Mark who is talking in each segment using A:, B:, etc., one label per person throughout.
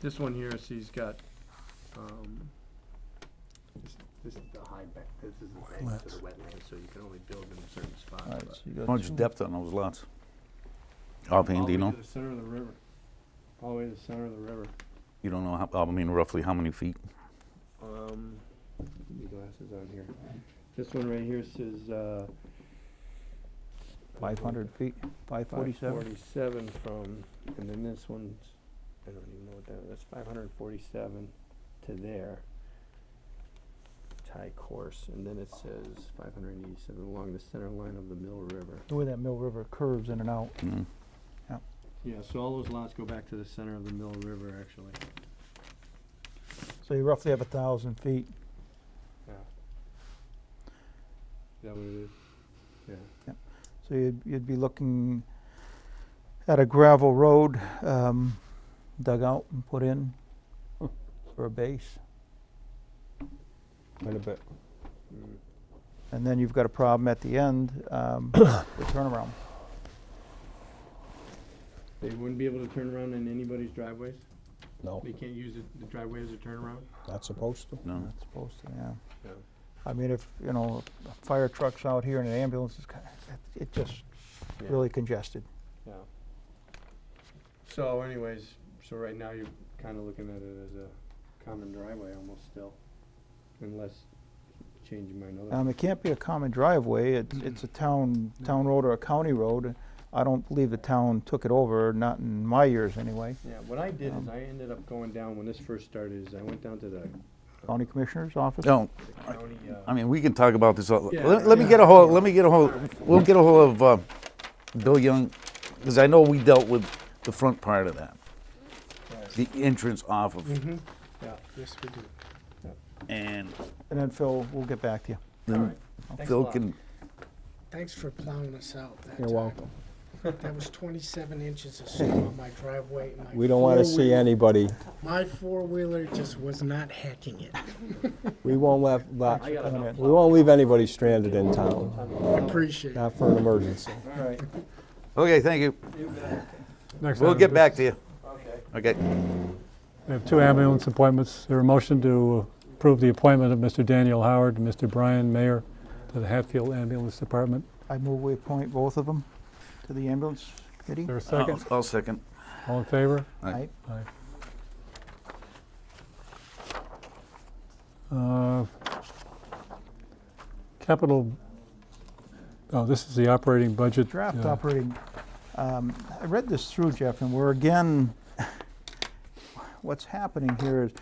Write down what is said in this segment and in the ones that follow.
A: This one here, see, he's got, um,
B: This this is the high back, this is the bank to the wetland,
A: so you can only build in a certain spot.
C: All right,
A: but-
C: so you got
D: How
C: two.
D: much depth on those lots? Offhand, do you
A: All
D: know?
A: the way to the center of the river, all the way to the center of the river.
D: You don't know, how- I mean roughly how many feet?
A: Um, put my glasses on here. This one right here says, uh.
C: Five hundred feet, five forty-seven?
A: Forty-seven from, and then this one's, I don't even know what that, that's five hundred and forty-seven to there. Tie course, and then it says five hundred and eighty-seven along the center line of the Mill River.
C: The way that Mill River curves in and out.
D: Mm.
A: Yeah, so all those lots go back to the center of the Mill River, actually.
C: So you roughly have a thousand feet.
A: Yeah. Is that what it is? Yeah.
C: So you'd, you'd be looking at a gravel road, um, dug out and put in for a base.
E: Quite a bit.
A: Mm.
C: And then you've got a problem at the end, um, the turnaround.
A: They wouldn't be able to turn around in anybody's driveways?
E: No,
A: They can't use it- the driveway as a turnaround?
E: not supposed to.
D: No?
C: Not supposed to, yeah.
A: Yeah.
C: I mean, if, you know, a fire truck's out here and an ambulance is kind of, it just
A: Yeah.
C: really congested.
A: Yeah. So anyways, so right now you're kinda looking at it as a common driveway almost still, unless changing my note.
C: Um, it can't be a common driveway, it's, it's a town, town road or a county road. I don't believe the town took it over, not in my years anyway.
A: Yeah, what I did is
C: um,
A: I ended up going down, when this first started, is I went down to the
C: County Commissioner's Office?
D: No,
A: the county,
D: I
A: uh,
D: mean, we can talk about this, all-
A: Yeah.
D: let let me get a hold, let me get a hold, we'll get a hold of uh, Bill Young, because I know we dealt with the front part of that, the entrance off of,
F: Mm-hmm.
A: Mhm. yeah,
E: Yes, we do.
D: and
C: And then Phil, we'll get back to you.
D: then
A: Alright. Thanks a
D: Phil
A: lot.
D: can,
G: Thanks for plowing us out that
E: You're
G: time.
E: welcome.
G: That was twenty-seven inches of snow on my driveway. and my
E: We don't want to see
G: four-wheel-
E: anybody,
G: My four-wheeler just was not hacking it.
E: we won't let, let-
A: I got enough.
E: we won't leave anybody stranded in town,
G: Appreciate it.
E: not for an emergency.
C: All right.
D: okay, thank you,
F: Next
D: we'll
F: item
D: get
F: is-
D: back to you. Okay.
F: We have two ambulance appointments. Is There a motion to approve the appointment of Mr. Daniel Howard and Mr. Brian Mayer to the Hatfield Ambulance Department.
C: I move we appoint both of them to the ambulance committee.
F: Is there a
D: I'll
F: second?
D: I'll second.
F: Uh, All in favor?
D: Aye.
F: Aye. Uh, Capital, oh, this is the operating budget.
C: Draft
F: uh,
C: operating, um, I read this through, Jeff, and we're again, what's happening here is,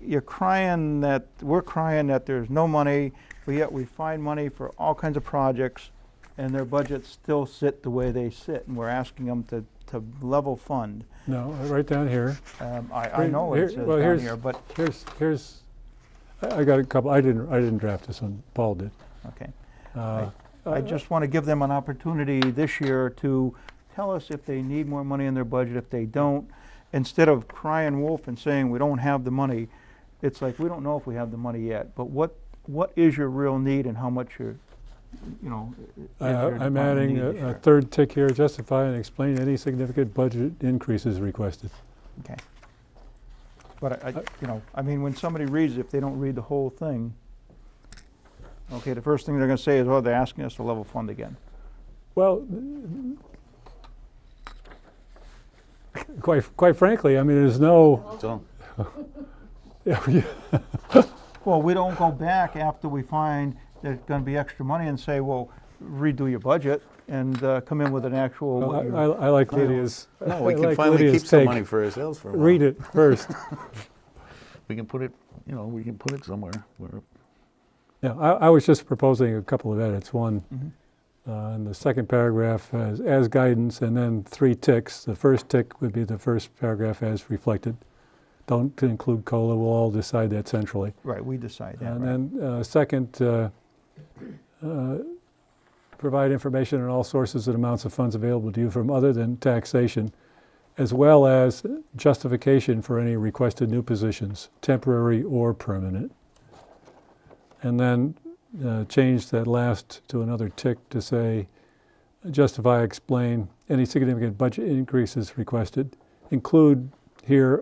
C: you're crying that, we're crying that there's no money, but yet we find money for all kinds of projects, and their budgets still sit the way they sit, and we're asking them to, to level fund.
F: No, right down here.
C: Um, I, I
F: Here-
C: know it
F: here-
C: says
F: well,
C: down
F: here's-
C: here, but,
F: Here's, here's, I I got a couple, I didn't, I didn't draft this one, Paul did.
C: okay.
F: Uh,
C: I just want to give them an opportunity this year to tell us if they need more money in their budget, if they don't. Instead of crying wolf and saying, we don't have the money, it's like, we don't know if we have the money yet, but what, what is your real need and how much you're, you know? is
F: I-
C: your
F: Uh, I'm
C: department
F: adding
C: need this
F: a- a
C: year?
F: third tick here, justify and explain any significant budget increases requested.
C: Okay. But I,
F: Uh,
C: I- you know, I mean, when somebody reads, it, if they don't read the whole thing, okay, the first thing they're gonna say is, oh, they're asking us to level fund again.
F: Well, quite, quite frankly, I mean, there's no,
D: So,
C: Well, we don't go back after we find there's gonna be extra money and say, well, redo your budget and uh, come in with an actual.
F: Well,
C: what
F: I
C: your-
F: I I like Lydia's, I
D: No, we can
F: like
D: finally
F: Lydia's
D: keep some
F: take.
D: money for ourselves for a while.
F: Read it first.
D: We can put it, you know, we can put it somewhere where
F: Yeah, I, I was just proposing a couple of edits. One,
C: Mhm.
D: Mm-hmm.
F: uh, in the second paragraph, as, as guidance, and then three ticks. The first tick would be the first paragraph as reflected. Don't include COLA, we'll all decide that centrally.
C: Right, we decide that, right.
F: And then, uh, second, uh, uh, provide information on all sources and amounts of funds available to you from other than taxation, as well as justification for any requested new positions, temporary or permanent. And then uh, change that last to another tick to say, justify, explain any significant budget increases requested, include here